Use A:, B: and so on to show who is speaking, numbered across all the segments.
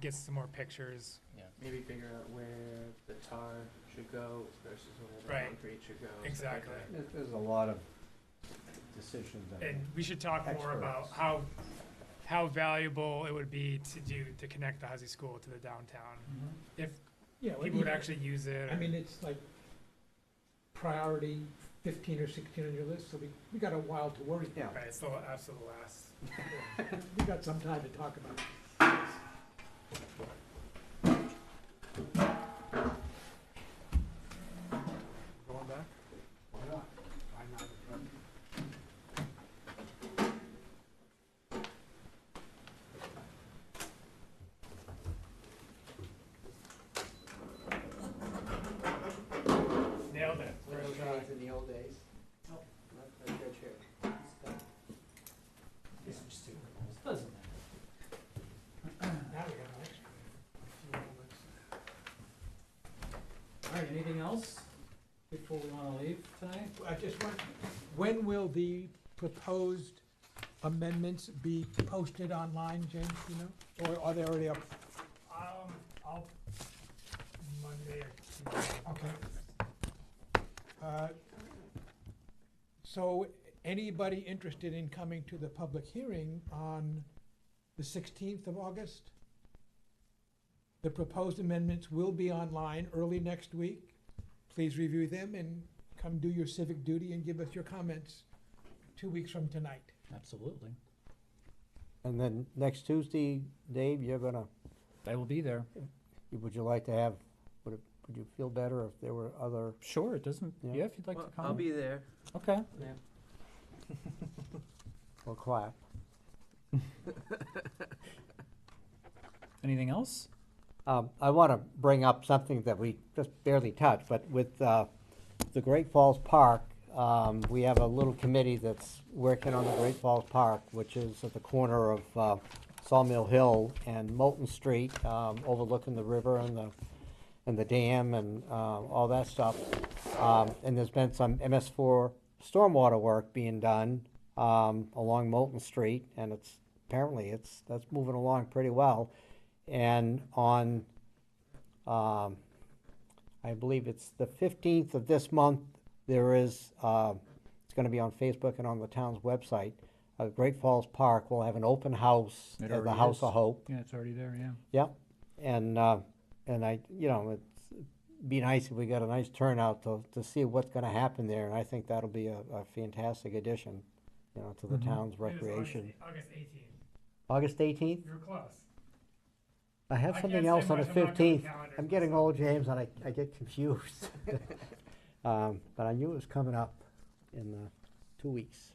A: gets some more pictures.
B: Maybe figure out where the tar should go versus where
A: Right.
B: the concrete should go. stuff like
A: Exactly.
B: that.
C: There's, there's a lot of decisions that.
A: And we should talk more about
C: Experts.
A: how, how valuable it would be to do, to connect the Huzzy School to the downtown. If
D: Yeah, well,
A: people would
D: you-
A: actually use it.
D: I mean, it's like priority fifteen or sixteen on your list, so we, we got a while to worry.
C: Yeah.
A: Right, it's the absolute last.
D: We got some time to talk about it.
C: Going back? Why not? Why not?
A: Nailed it.
B: One
A: First
B: of those
A: try.
B: things in the old days.
E: Oh.
B: Not- not your chair. Stuff.
E: These are stupid. Doesn't matter.
D: Now we got an extra.
E: All right, anything else before we wanna leave tonight?
D: I just want, when will the proposed amendments be posted online, James, you know? Or are they already up?
A: Um, I'll, Monday or Tuesday.
D: Okay. Uh, So anybody interested in coming to the public hearing on the 16th of August? The proposed amendments will be online early next week. Please review them and come do your civic duty and give us your comments two weeks from tonight.
E: Absolutely.
F: And then next Tuesday, Dave, you're gonna,
E: I will be there.
F: would you like to have, would it, would you feel better if there were other?
E: Sure, it doesn't,
F: Yeah.
E: yeah, if you'd like to
B: Well,
E: come.
B: I'll be there.
E: Okay.
F: Or clap.
E: Anything else?
F: Um, I wanna bring up something that we just barely touched, but with, uh, the Great Falls Park, um, we have a little committee that's working on the Great Falls Park, which is at the corner of, uh, Sawmill Hill and Moulton Street, um, overlooking the river and the, and the dam and, uh, all that stuff. Um, and there's been some MS four stormwater work being done, um, along Moulton Street, and it's, apparently it's, that's moving along pretty well. And on, um, I believe it's the fifteenth of this month, there is, uh, it's gonna be on Facebook and on the town's website. Uh, Great Falls Park will have an open house
E: It
F: at the
E: already
F: House
E: is.
F: of Hope.
E: Yeah, it's already there, yeah.
F: Yep, and, uh, and I, you know, it's, be nice if we got a nice turnout to, to see what's gonna happen there, and I think that'll be a, a fantastic addition, you know, to the
E: Mhm.
F: town's
A: It was
F: recreation.
A: August- August eighteenth.
F: August eighteenth,
A: You were close.
F: I have
A: I
F: something
A: can't
F: else
A: say
F: on the
A: much, I'm not good with
F: fifteenth.
A: calendars
F: I'm getting
A: myself.
F: old, James, and I, I get confused. Um, but I knew it was coming up in, uh, two weeks.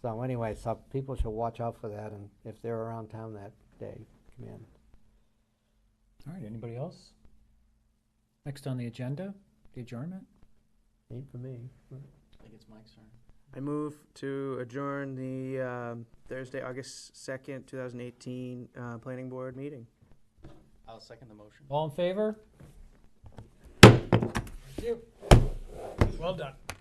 F: So anyway, so people should watch out for that, and if they're around town that day, come in.
E: All right, anybody else? Next on the agenda, the adjournment?
F: Ain't for me.
E: I think it's Mike's turn.
B: I move to adjourn the um, Thursday, August 2nd, 2018 uh, Planning Board meeting.
G: I'll second the motion.
E: All in favor?
D: Well done.